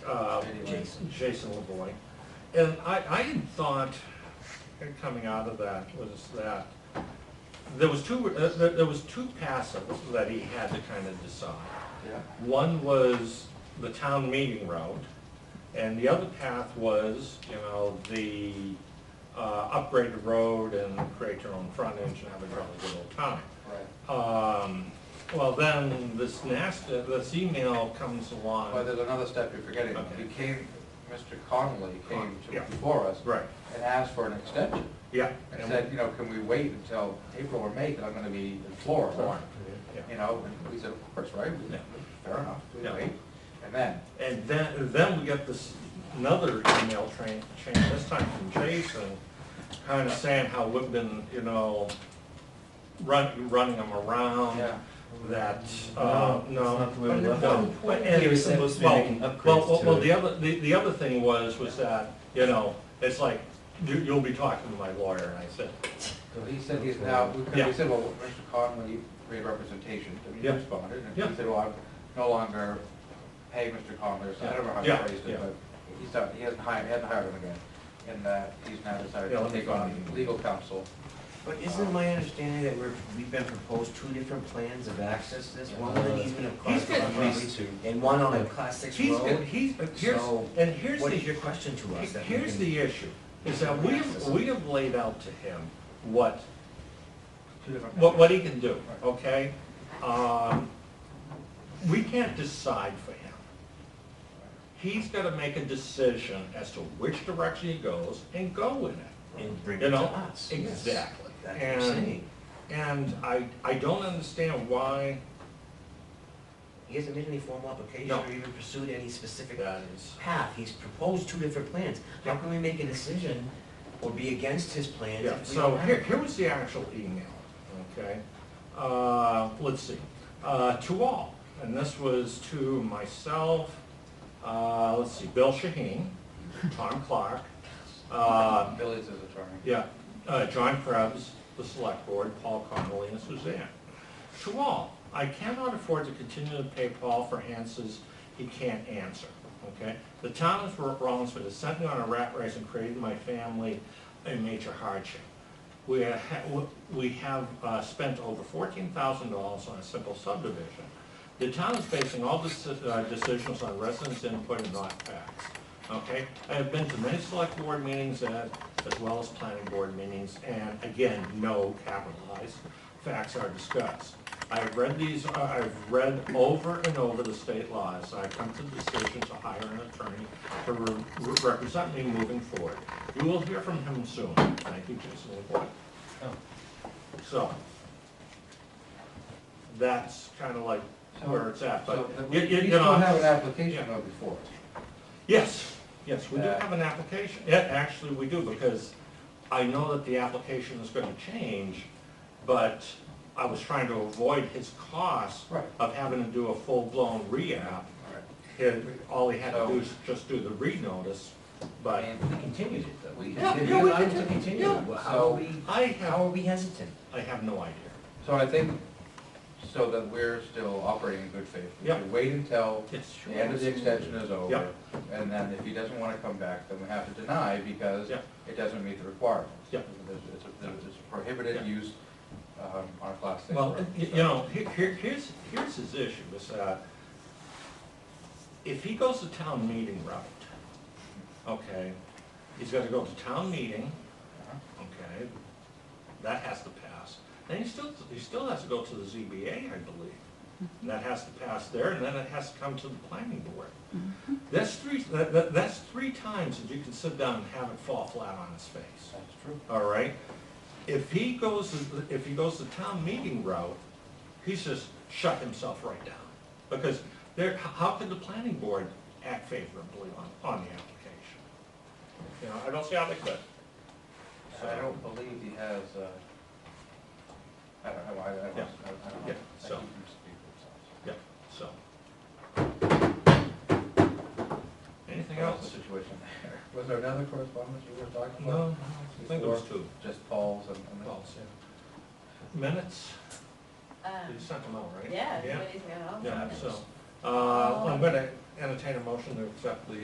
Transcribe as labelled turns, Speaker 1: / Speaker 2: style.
Speaker 1: uh, Jason LeBoy. And I, I had thought, uh, coming out of that, was that there was two, uh, there there was two passive that he had to kind of decide.
Speaker 2: Yeah.
Speaker 1: One was the town meeting route, and the other path was, you know, the uh, upgraded road and create your own frontage and have a really good old time.
Speaker 2: Right.
Speaker 1: Um, Well, then this nasty, this email comes along.
Speaker 2: Well, there's another step you're forgetting.
Speaker 1: Um, Okay.
Speaker 2: He came, Mr. Connolly came to,
Speaker 1: Yeah.
Speaker 2: before us
Speaker 1: Right,
Speaker 2: and asked for an extension.
Speaker 1: yeah.
Speaker 2: And said, you know, can we wait until April or May, because I'm gonna be in Florida,
Speaker 1: Yeah.
Speaker 2: you know? And we said, of course, right? We-
Speaker 1: Yeah.
Speaker 2: Fair enough, we
Speaker 1: Yeah.
Speaker 2: wait. And then,
Speaker 1: And then, then we get this, another email train, chain, this time from Jason, kind of saying how we've been, you know, run, running them around.
Speaker 2: yeah,
Speaker 1: That, uh,
Speaker 3: That's
Speaker 1: no.
Speaker 3: not the way we
Speaker 1: no,
Speaker 3: left it.
Speaker 1: well, and-
Speaker 3: He was supposed to be
Speaker 1: well,
Speaker 3: making upgrades
Speaker 1: well, well,
Speaker 3: to
Speaker 1: Well,
Speaker 3: it.
Speaker 1: the other, the, the other thing was, was that, you know, it's like, you, you'll be talking to my lawyer, and I said,
Speaker 2: so he said he's now, we
Speaker 1: Yeah.
Speaker 2: we said, well, Mr. Connolly made representation, and he
Speaker 1: Yeah.
Speaker 2: responded. And
Speaker 1: Yeah.
Speaker 2: he said, well, I'm no longer pay Mr. Connolly, or something. I don't know how
Speaker 1: Yeah.
Speaker 2: he phrased
Speaker 1: Yeah.
Speaker 2: it, but he's not, he hasn't hired, he hasn't hired him again. And uh, he's now decided
Speaker 1: Yeah,
Speaker 2: to
Speaker 1: let me
Speaker 2: take
Speaker 1: find
Speaker 2: on
Speaker 1: the email.
Speaker 2: legal counsel.
Speaker 3: But isn't my understanding that we're, we've been proposed two different plans of access to this, one with an easement across
Speaker 1: He's got
Speaker 3: the
Speaker 1: at
Speaker 3: property,
Speaker 1: least
Speaker 3: and one on a class six
Speaker 1: he's,
Speaker 3: road?
Speaker 1: he's, here's,
Speaker 3: So,
Speaker 1: and here's the.
Speaker 3: What is your question to us? that we
Speaker 1: Here's
Speaker 3: can-
Speaker 1: the issue, is that we have, we have laid out to him what,
Speaker 2: Two different-
Speaker 1: what, what he can do, okay? Um, We can't decide for him. He's gotta make a decision as to which direction he goes and go with it,
Speaker 3: And bring
Speaker 1: you
Speaker 3: it to
Speaker 1: know?
Speaker 3: us. yes.
Speaker 1: Exactly.
Speaker 3: That's what I'm
Speaker 1: And,
Speaker 3: saying.
Speaker 1: and I, I don't understand why
Speaker 3: He hasn't made any formal application
Speaker 1: No.
Speaker 3: or even pursued any specific
Speaker 1: that is.
Speaker 3: path. He's proposed two different plans. How can we make a decision or be against his plans
Speaker 1: Yeah,
Speaker 3: if we
Speaker 1: so
Speaker 3: don't have?
Speaker 1: here,
Speaker 3: it?
Speaker 1: here was the actual email, okay? Uh, let's see, uh, to all, and this was to myself, uh, let's see, Bill Shaheen, Tom Clark, uh,
Speaker 2: Billy's his attorney.
Speaker 1: yeah, uh, John Krebs, the select board, Paul Connolly, and Suzanne. To all, I cannot afford to continue to pay Paul for answers he can't answer, okay? The town of Rollinsford has sent me on a rat race and created my family a major hardship. We ha- we have uh, spent over fourteen thousand dollars on a simple subdivision. The town is basing all deci- uh, decisions on residents' input and not facts, okay? I have been to many select board meetings uh, as well as planning board meetings, and again, no capitalized facts are discussed. I've read these, uh, I've read over and over the state laws, I come to the decision to hire an attorney to re- re- represent me moving forward. You will hear from him soon, thank you, Jason LeBoy. So, that's kind of like where it's at,
Speaker 2: So
Speaker 1: but,
Speaker 2: that
Speaker 1: you,
Speaker 2: we
Speaker 1: you
Speaker 2: we
Speaker 1: you
Speaker 2: still have
Speaker 1: know,
Speaker 2: an application
Speaker 1: yeah.
Speaker 2: though before. us.
Speaker 1: yes, yes, we do have an application, Uh, yeah, actually, we do, because I know that the application is gonna change, but I was trying to avoid his cost
Speaker 2: Right.
Speaker 1: of having to do a full-blown re-app.
Speaker 2: All right.
Speaker 1: He- All he had to do is just do the re-notice, but
Speaker 2: And
Speaker 3: We continued it, though.
Speaker 2: We
Speaker 1: Yeah,
Speaker 2: continue.
Speaker 1: yeah, we
Speaker 3: allowed to
Speaker 1: continue.
Speaker 3: continue.
Speaker 1: Yeah.
Speaker 3: Well, How
Speaker 2: So-
Speaker 3: are we,
Speaker 1: I
Speaker 3: how
Speaker 1: have,
Speaker 3: are we hesitant?
Speaker 1: I have no idea.
Speaker 2: So I think, so that we're still operating in good faith. We
Speaker 1: Yep.
Speaker 2: should Wait until
Speaker 1: Yes,
Speaker 2: the end of the extension is
Speaker 1: Yeah.
Speaker 2: over. And then if he doesn't want to come back, then we have to deny because
Speaker 1: Yeah.
Speaker 2: it doesn't meet the requirements.
Speaker 1: Yeah.
Speaker 2: There's- It's a- there's a
Speaker 1: Yeah.
Speaker 2: prohibited use um, on a class six
Speaker 1: Well,
Speaker 2: road.
Speaker 1: you you know, he- here, here's, here's his issue, is that if he goes the town meeting route, okay, he's gotta go to town meeting,
Speaker 2: Uh-huh.
Speaker 1: okay, that has to pass. Then he still, he still has to go to the ZBA, I believe, and that has to pass there, and then it has to come to the planning board. That's three, that, that, that's three times that you can sit down and have it fall flat on his face.
Speaker 2: That's true.
Speaker 1: All right? If he goes, if he goes the town meeting route, he's just shut himself right down. Because there, how can the planning board act favorably on, on the application? You know, I don't see how they could.
Speaker 2: So I don't believe he has, uh, I don't know, I, I don't, I
Speaker 1: Yeah.
Speaker 2: don't know.
Speaker 1: Yeah,
Speaker 2: I
Speaker 1: so-
Speaker 2: keep him speak for
Speaker 1: Yeah, so. Anything
Speaker 2: himself. What's
Speaker 1: else?
Speaker 2: the situation there? Was there another correspondence you were talking about?
Speaker 1: No, I think it was two.
Speaker 2: Just Paul's and. and-
Speaker 1: Paul's, Minutes, you
Speaker 4: Um,
Speaker 1: sent them out, right?
Speaker 4: Yeah,
Speaker 1: Yeah,
Speaker 4: everybody's got all
Speaker 1: yeah,
Speaker 4: that.
Speaker 1: so, uh, I'm gonna entertain a motion to accept the